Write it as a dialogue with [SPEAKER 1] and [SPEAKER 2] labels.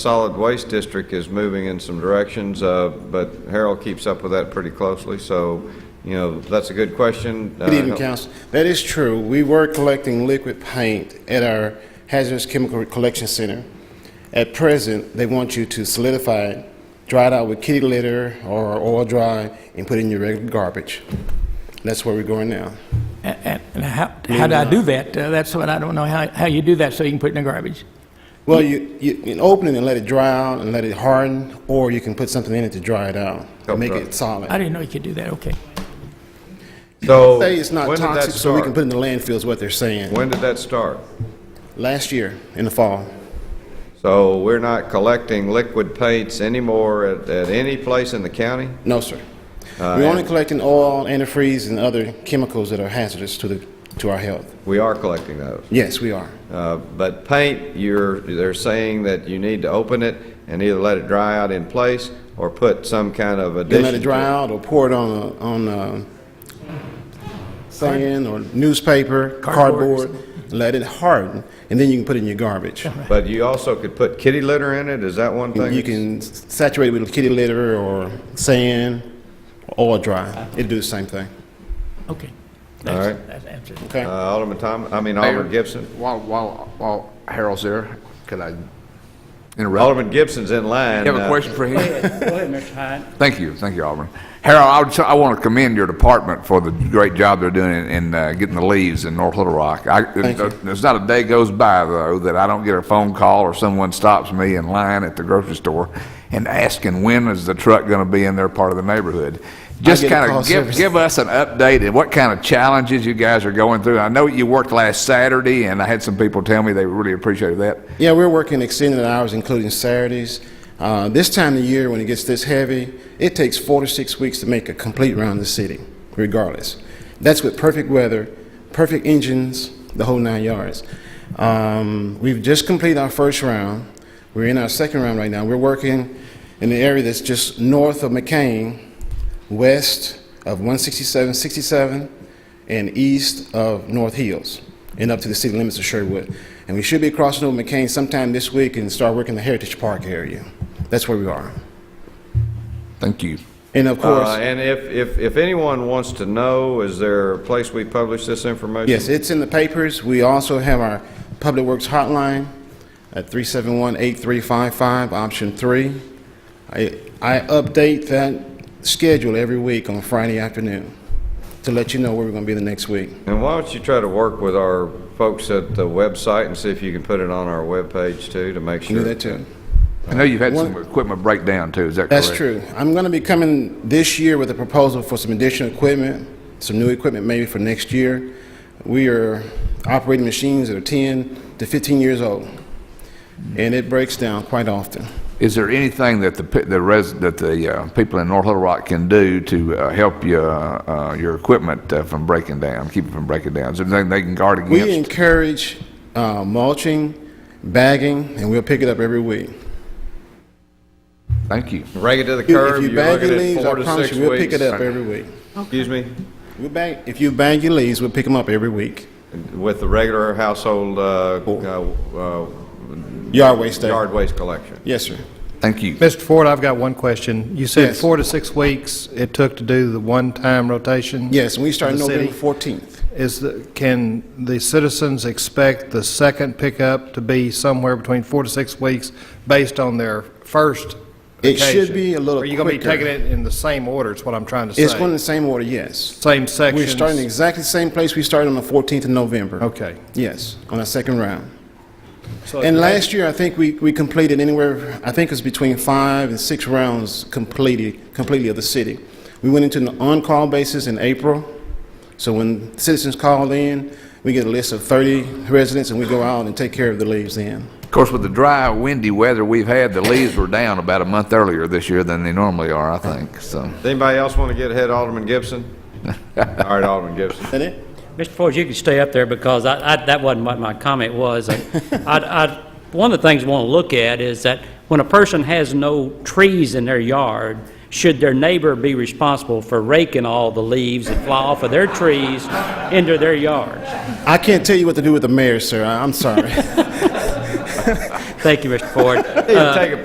[SPEAKER 1] Solid Waste District is moving in some directions, uh, but Harold keeps up with that pretty closely, so, you know, that's a good question. Uh,
[SPEAKER 2] Good evening, Council. That is true. We were collecting liquid paint at our hazardous chemical collection center. At present, they want you to solidify it, dry it out with kitty litter or oil dry, and put it in your regular garbage. That's where we're going now.
[SPEAKER 3] And- And and how, how do I do that? Uh, That's what I don't know, how, how you do that so you can put it in the garbage?
[SPEAKER 2] Well, you, you can open it and let it dry out and let it harden, or you can put something in it to dry it out,
[SPEAKER 1] Help
[SPEAKER 2] make
[SPEAKER 1] dry.
[SPEAKER 2] it solid.
[SPEAKER 3] I didn't know you could do that, okay.
[SPEAKER 1] So,
[SPEAKER 2] Say it's not
[SPEAKER 1] when did that
[SPEAKER 2] toxic, so we can
[SPEAKER 1] start?
[SPEAKER 2] put it in the landfill is what they're saying.
[SPEAKER 1] When did that start?
[SPEAKER 2] Last year, in the fall.
[SPEAKER 1] So we're not collecting liquid paints anymore at, at any place in the county?
[SPEAKER 2] No, sir. We're only collecting oil, antifreeze, and other chemicals that are hazardous to the, to our health.
[SPEAKER 1] We are collecting those.
[SPEAKER 2] Yes, we are.
[SPEAKER 1] Uh, But paint, you're, they're saying that you need to open it and either let it dry out in place or put some kind of
[SPEAKER 2] Then
[SPEAKER 1] addition.
[SPEAKER 2] let it dry out or pour it on, a- on uh, sand or newspaper,
[SPEAKER 3] Cardboard or
[SPEAKER 2] cardboard, let it harden, and then you can put it in your garbage.
[SPEAKER 1] But you also could put kitty litter in it, is that one thing?
[SPEAKER 2] You can s- saturate it with kitty litter or sand, or oil dry. It'll do the same thing.
[SPEAKER 3] Okay.
[SPEAKER 1] All
[SPEAKER 3] That's-
[SPEAKER 1] right.
[SPEAKER 3] That's answered.
[SPEAKER 2] Okay?
[SPEAKER 1] Uh, Alderman Tom, I mean Alderman
[SPEAKER 4] Mayor,
[SPEAKER 1] Gibson?
[SPEAKER 4] While, while, while Harold's there, could I interrupt?
[SPEAKER 1] Alderman Gibson's in line.
[SPEAKER 4] You have a
[SPEAKER 1] Uh,
[SPEAKER 4] question for him?
[SPEAKER 5] Go ahead, Mr. Hyde.
[SPEAKER 4] Thank you, thank you, Alderman. Harold, I would, say- I want to commend your department for the great job they're doing in, in uh, getting the leaves in North Little Rock. I, there's not a day goes by though that I don't get a phone call or someone stops me in line at the grocery store and asking when is the truck going to be in their part of the neighborhood. Just
[SPEAKER 2] get a
[SPEAKER 4] kind
[SPEAKER 2] call
[SPEAKER 4] of give,
[SPEAKER 2] service.
[SPEAKER 4] give us an update and what kind of challenges you guys are going through. I know you worked last Saturday and I had some people tell me they really appreciated that.
[SPEAKER 2] Yeah, we're working extended hours, including Saturdays. Uh, this time of year, when it gets this heavy, it takes four to six weeks to make a complete round of the city, regardless. That's with perfect weather, perfect engines, the whole nine yards. Um, we've just completed our first round. We're in our second round right now. We're working in the area that's just north of McCain, west of 167, 67, and east of North Hills and up to the city limits of Sherwood. And we should be crossing over McCain sometime this week and start working the Heritage Park area. That's where we are.
[SPEAKER 4] Thank you.
[SPEAKER 2] And of course,
[SPEAKER 1] Uh, and if, if, if anyone wants to know, is there a place we publish this information?
[SPEAKER 2] yes, it's in the papers. We also have our Public Works hotline at 371-8355, option three. I, I update that schedule every week on Friday afternoon to let you know where we're going to be the next week.
[SPEAKER 1] And why don't you try to work with our folks at the website and see if you can put it on our webpage too, to make
[SPEAKER 2] Do
[SPEAKER 1] sure?
[SPEAKER 2] that too.
[SPEAKER 4] I know you've had
[SPEAKER 2] One-
[SPEAKER 4] some equipment breakdown too, is that correct?
[SPEAKER 2] That's true. I'm going to be coming this year with a proposal for some additional equipment, some new equipment maybe for next year. We are operating machines that are 10 to 15 years old, and it breaks down quite often.
[SPEAKER 4] Is there anything that the, pe- the res, that the uh, people in North Little Rock can do to uh, help you, uh, uh, your equipment uh, from breaking down, keep it from breaking down? Is there anything they can guard
[SPEAKER 2] We
[SPEAKER 4] against?
[SPEAKER 2] encourage uh, mulching, bagging, and we'll pick it up every week.
[SPEAKER 4] Thank you.
[SPEAKER 1] Rake it to the
[SPEAKER 2] If you-
[SPEAKER 1] curb,
[SPEAKER 2] If you
[SPEAKER 1] you're
[SPEAKER 2] bag your
[SPEAKER 1] looking at
[SPEAKER 2] leaves,
[SPEAKER 1] four
[SPEAKER 2] I
[SPEAKER 1] to
[SPEAKER 2] promise
[SPEAKER 1] six weeks.
[SPEAKER 2] you, we'll pick it up every week.
[SPEAKER 1] Excuse me?
[SPEAKER 2] We bag, if you bag your leaves, we'll pick them up every week.
[SPEAKER 1] With the regular household, uh, uh,
[SPEAKER 2] Yard waste
[SPEAKER 1] uh,
[SPEAKER 2] day.
[SPEAKER 1] yard waste collection?
[SPEAKER 2] Yes, sir.
[SPEAKER 4] Thank you.
[SPEAKER 6] Mr. Ford, I've got one question. You said
[SPEAKER 2] Yes.
[SPEAKER 6] four to six weeks it took to do the one-time rotation?
[SPEAKER 2] Yes, and we start
[SPEAKER 6] of the
[SPEAKER 2] November
[SPEAKER 6] city.
[SPEAKER 2] 14th.
[SPEAKER 6] Is, the- can the citizens expect the second pickup to be somewhere between four to six weeks based on their first
[SPEAKER 2] It should
[SPEAKER 6] occasion?
[SPEAKER 2] be a little
[SPEAKER 6] Are you going to be
[SPEAKER 2] quicker.
[SPEAKER 6] taking it in the same order, is what I'm trying to say?
[SPEAKER 2] It's going in the same order, yes.
[SPEAKER 6] Same sections?
[SPEAKER 2] We're starting exactly the same place we started on the 14th of November.
[SPEAKER 6] Okay.
[SPEAKER 2] Yes, on the second round.
[SPEAKER 6] So
[SPEAKER 2] And
[SPEAKER 6] it's-
[SPEAKER 2] last year, I think we, we completed anywhere, I think it was between five and six rounds completed, completely of the city. We went into an on-call basis in April. So when citizens called in, we get a list of 30 residents and we go out and take care of the leaves then.
[SPEAKER 4] Of course, with the dry, windy weather we've had, the leaves were down about a month earlier this year than they normally are, I think, so.
[SPEAKER 1] Does Anybody else want to get ahead of Alderman Gibson? All right, Alderman Gibson.
[SPEAKER 2] Is that it?
[SPEAKER 5] Mr. Ford, you can stay up there because I, I, that wasn't what my comment was. I, I, I- one of the things I want to look at is that when a person has no trees in their yard, should their neighbor be responsible for raking all the leaves that fly off of their trees into their yards?
[SPEAKER 2] I can't tell you what to do with the mayor, sir. I- I'm sorry.
[SPEAKER 5] Thank you, Mr. Ford.
[SPEAKER 4] Uh,
[SPEAKER 1] Take a